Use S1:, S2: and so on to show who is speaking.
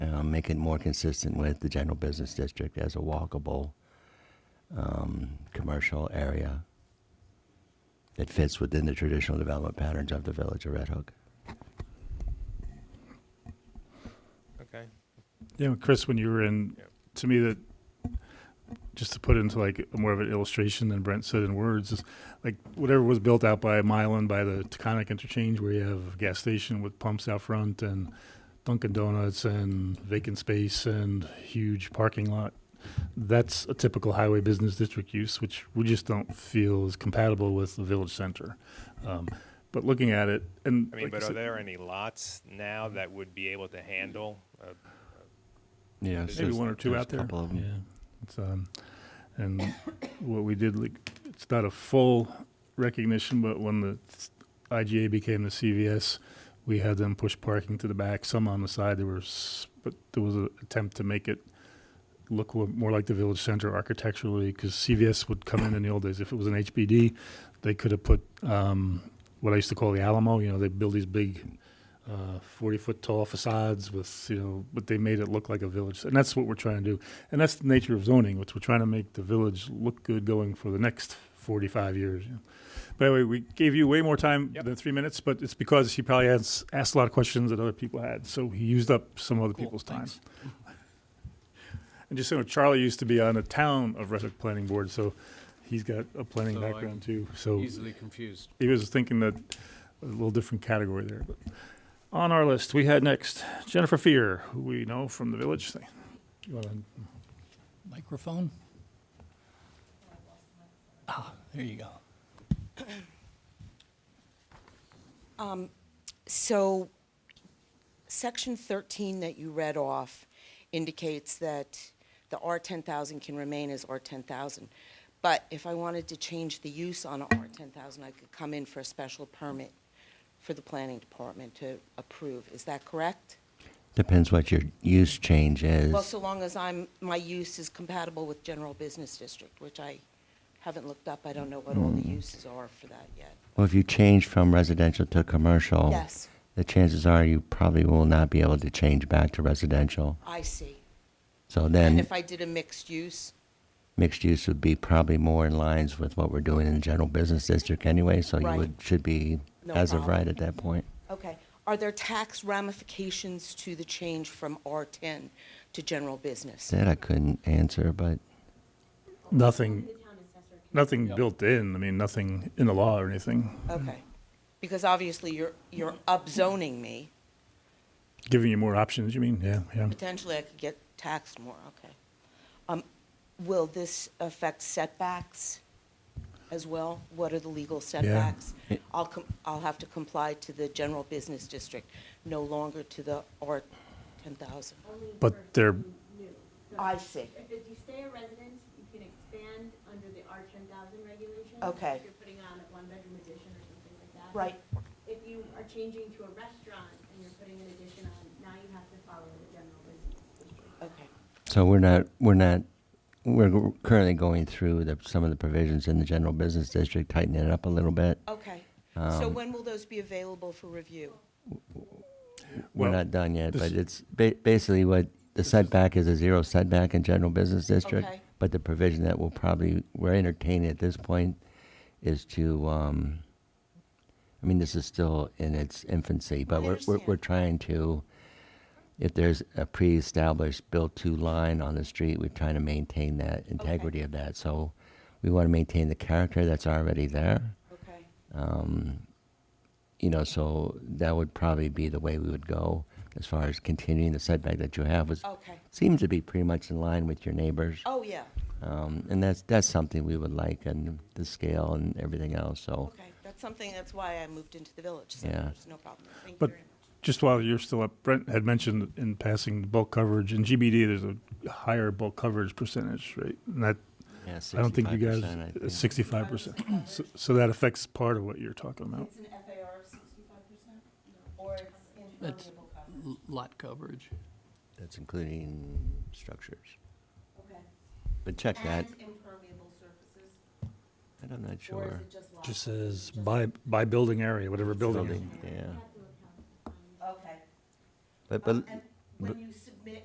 S1: um, make it more consistent with the general business district as a walkable, um, commercial area that fits within the traditional development patterns of the village of Red Hook.
S2: Okay.
S3: Yeah, well, Chris, when you were in,
S2: Yep.
S3: to me that, just to put into like more of an illustration than Brent said in words, is like whatever was built out by Milan by the Taconic interchange, where you have a gas station with pumps out front and Dunkin' Donuts and vacant space and huge parking lot. That's a typical highway business district use, which we just don't feel is compatible with the village center. Um, but looking at it, and
S2: I mean,
S3: like I
S2: but are
S3: said-
S2: there any lots now that would be able to handle? uh,
S1: Yeah,
S2: Maybe
S3: maybe one or two out there.
S1: Couple of them.
S3: Yeah, it's um, and what we did, like, it's not a full recognition, but when the s- IGA became the CVS, we had them push parking to the back, some on the side. There was, but there was an attempt to make it look wa- more like the village center architecturally, because CVS would come in in the old days. If it was an HBD, they could have put um, what I used to call the Alamo. You know, they build these big uh, 40 foot tall facades with, you know, but they made it look like a village. And that's what we're trying to do. And that's the nature of zoning, which we're trying to make the village look good going for the next 45 years. you know. By the way, we gave you way more time
S2: Yep.
S3: than three minutes, but it's because he probably has asked a lot of questions that other people had. So he used up some other
S4: Cool,
S3: people's time.
S4: thanks.
S3: and just so you know, Charlie used to be on the town of Red Hook Planning Board, so he's got a planning
S4: So I
S3: background too. So
S4: Easily confused.
S3: he was thinking that a little different category there. But on our list, we had next Jennifer Fear, who we know from the village thing. You wanna-
S4: Microphone? Ah, there you go.
S5: So, section 13 that you read off indicates that the R10,000 can remain as R10,000. But if I wanted to change the use on a R10,000, I could come in for a special permit for the planning department to approve. Is that correct?
S1: Depends what your use change is.
S5: Well, so long as I'm, my use is compatible with general business district, which I haven't looked up. I don't know what all the uses are for that yet.
S1: Well, if you change from residential to commercial.
S5: Yes.
S1: The chances are you probably will not be able to change back to residential.
S5: I see.
S1: So
S5: And
S1: then
S5: if I did a mixed use?
S1: mixed use would be probably more in lines with what we're doing in the general business district anyway. So you
S5: Right.
S1: would, should be
S5: No
S1: as of
S5: problem. Mm-hmm.
S1: right at that point.
S5: Okay. Are there tax ramifications to the change from R10 to general business?
S1: That I couldn't answer, but
S3: Nothing, nothing built in. I mean, nothing in the law or anything.
S5: Okay. Because obviously you're, you're upzoning me.
S3: Giving you more options, you mean? Yeah, yeah.
S5: Potentially I could get taxed more, okay. Um, Will this affect setbacks as well? What are the legal setbacks?
S1: It-
S5: I'll, com- I'll have to comply to the general business district, no longer to the R10,000.
S3: But they're,
S5: I see.
S6: If you stay a resident, you can expand under the R ten thousand regulations.
S5: Okay.
S6: If you're putting on a one-bedroom addition or something like that.
S5: Right.
S6: If you are changing to a restaurant and you're putting an addition on, now you have to follow the general business district.
S5: Okay.
S1: So we're not, we're not, we're g- currently going through the, some of the provisions in the general business district, tightening it up a little bit.
S5: Okay. So
S1: Um,
S5: when will those be available for review?
S1: We're
S3: Well,
S1: not done yet, but it's
S3: this-
S1: ba- basically what, the setback is a zero setback in general business district.
S5: Okay.
S1: But the provision that will probably, we're entertaining at this point is to, um, I mean, this is still in its infancy, but we're, we're, we're
S5: understand.
S1: trying to, if there's a pre-established built-to line on the street, we're trying to maintain that integrity of that. So we want to maintain the character that's already there.
S5: Okay.
S1: Um, you know, so that would probably be the way we would go as far as continuing the setback that you have. Was
S5: Okay.
S1: seems to be pretty much in line with your neighbors,
S5: Oh, yeah.
S1: um, and that's that's something we would like, and the scale and everything else. So
S5: Okay. That's something, that's why I moved into the village. So
S1: Yeah.
S5: there's no problem. Thank you
S3: But-
S5: very much.
S3: just while you're still up, Brent had mentioned in passing the bulk coverage. In GBD, there's a higher bulk coverage percentage, right? And that,
S1: yeah,
S3: I don't think you guys, uh,
S1: 65%, I think.
S3: sixty-five percent. So, so that affects part of what you're talking about.
S5: an FAR of 65%? Or it's
S4: That's-
S5: impermeable cover?
S4: L- Lot coverage.
S1: that's including structures.
S5: Okay.
S1: But check that.
S5: impermeable surfaces?
S1: And I'm not sure.
S5: just lot?
S7: Just says by, by building area, whatever building.
S1: Building, yeah.
S5: Okay.
S1: But but
S5: Um, Oh, and When you